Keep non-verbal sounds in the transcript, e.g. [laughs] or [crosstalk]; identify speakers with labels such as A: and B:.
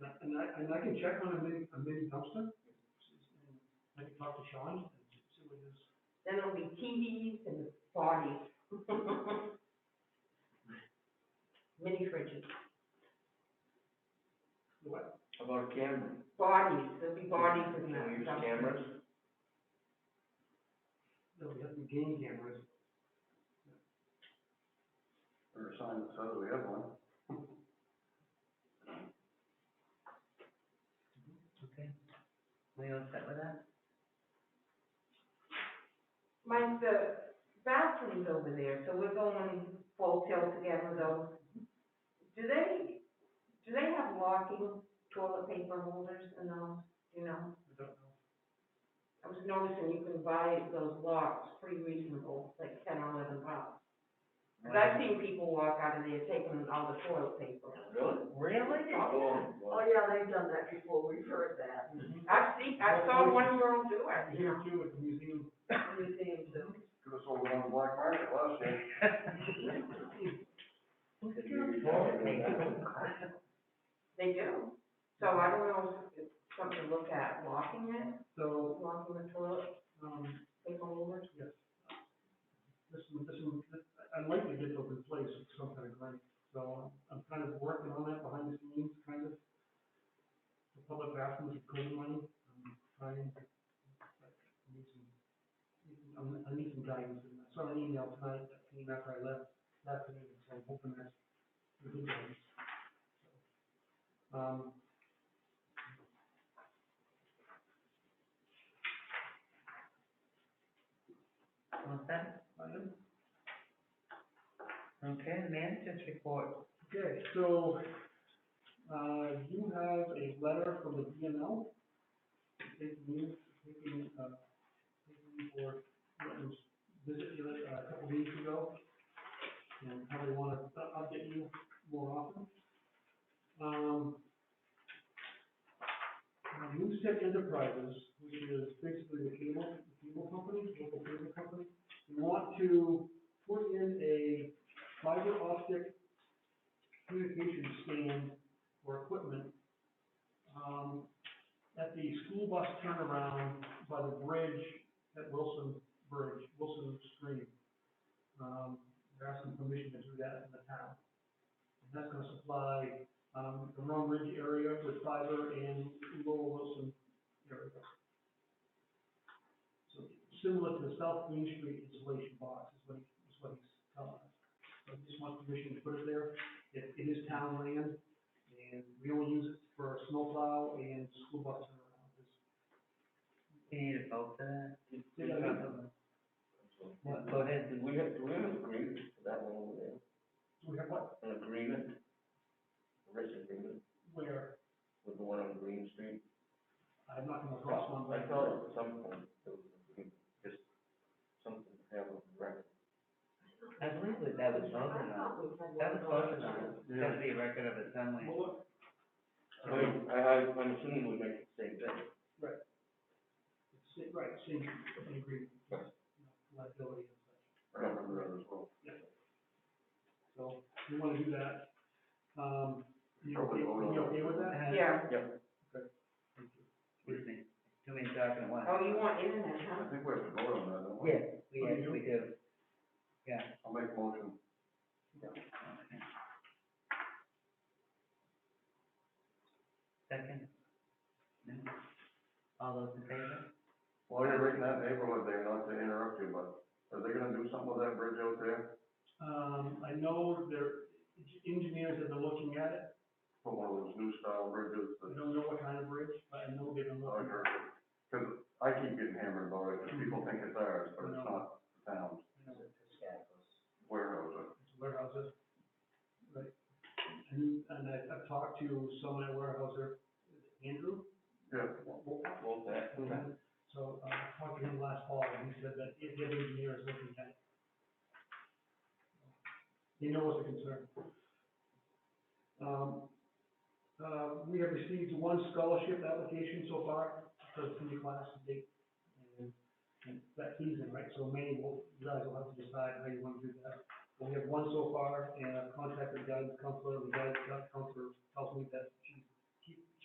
A: and I can check on a mini, a mini dumpster, and I can talk to Sean, and see what his,
B: Then it'll be TVs and
C: [laughs]
B: bodies. Mini fridges,
A: what,
C: About cameras.
B: bodies, there'll be bodies in there.
C: Can we use cameras?
A: no, we have to game cameras.
D: Or a sign that says we have one.
C: Okay. We all set with that?
B: Mike, the bathrooms over there, so we're going full tilt again with those. Do they, do they have locking toilet paper holders in those, you know?
A: I don't know.
B: I was noticing you can buy those locks pretty reasonable, like ten or eleven bucks. But I've seen people walk out of there taking all the toilet paper.
C: Really?
E: Really?
C: Oh,
E: Oh,
C: well,
E: yeah, they've done that before, we've heard that.
B: I've seen, I saw one girl do it, you
A: Here
B: know,
A: too, at the museum,
E: Museums and.
D: Could have sold it on the black market last year.
A: [laughs]
C: could be retired with that.
B: they do. So I don't know if it's something to look at, locking it,
A: so,
B: locking the toilet
A: um,
B: paper holders.
A: yes. This one, this one, I'd like to get those in place with some kind of grant, so I'm kind of working on that behind the scenes, kind of. The public bathrooms are cool money, I'm trying, but I need some, I'm- I need some guidance, and I saw an email tonight that came after I left, last meeting, so I'm hoping that's. good guidance. Um,
C: All set?
A: item
C: Okay, manager's report.
A: Okay, so, uh, you have a letter from the E DML, taking you, taking, uh, taking you for, what was visited you uh, a couple weeks ago, and how they wanna u- update you more often. Um, uh, Moosehead Enterprises, which is basically the cable, cable company, local cable company, want to put in a fiber optic communication stand or equipment, um, at the school bus turnaround by the bridge at Wilson Bridge, Wilson Stream. Um, they're asking permission to do that in the town. And that's gonna supply, um, the Rome Ridge area with fiber and Lower Wilson area. So similar to the South Green Street installation box is what he, is what he's telling us. So he just wants permission to put it there it, it is town land, and we only use it for snowplow and school bus turnaround. It's-
C: You need a vote for that?
A: Yeah, yeah.
C: What, go ahead, do we have, do we have an agreement for that one over there?
A: We have what,
C: An agreement? A written agreement
A: where,
C: with the one on Green Street?
A: I've not come across one,
C: I
A: but
C: thought at some point there was an agreement, just something to have on record. I believe that that was voted
B: I
C: on.
B: thought we had
C: That was
B: one.
C: voted on. It's gotta be a record of it somewhere.
A: Well,
C: I, mean, I, I- I'm assuming we make the same thing.
A: it's, it- right, same, same agreement, you know, liability and such.
D: I don't remember that as well.
A: So, we wanna do that. Um, you okay,
D: Probably vote on
A: you okay
D: it.
A: with that?
B: Yeah,
C: Excuse me, too many talking at once.
B: oh, you want internet,
D: I
B: huh?
D: think we have to vote on that, don't we?
C: Yes, we,
A: Oh, you
C: yes, we do. Yeah.
D: I'll make a motion.
C: Second? No? All those in favor?
D: While you're right in that neighborhood there, not to interrupt you, but are they gonna do something with that bridge out there?
A: Um, I know there, engineers have been looking at it,
D: Put one of those new style bridges
A: I
D: that,
A: don't know what kind of bridge, but I know they've been
D: I
A: looking. at it.
D: heard, cause I keep getting hammered about it, 'cause people think it's ours, but it's not the town's
A: You know,
D: warehouse. it.
A: It's warehouses. Right. And, and I, I've talked to someone at warehouser, Andrew,
D: Yeah,
C: Both that.
A: so, uh, I talked to him last fall, and he said that if the engineer is looking at it. He knows the concern. Um, uh, we have received one scholarship application so far for the senior class to date. And- And that's season, right, so many, will- you guys will have to decide how you want to do that. But we have one so far, and I've contacted the guidance counselor, the guidance counselor tells me that she's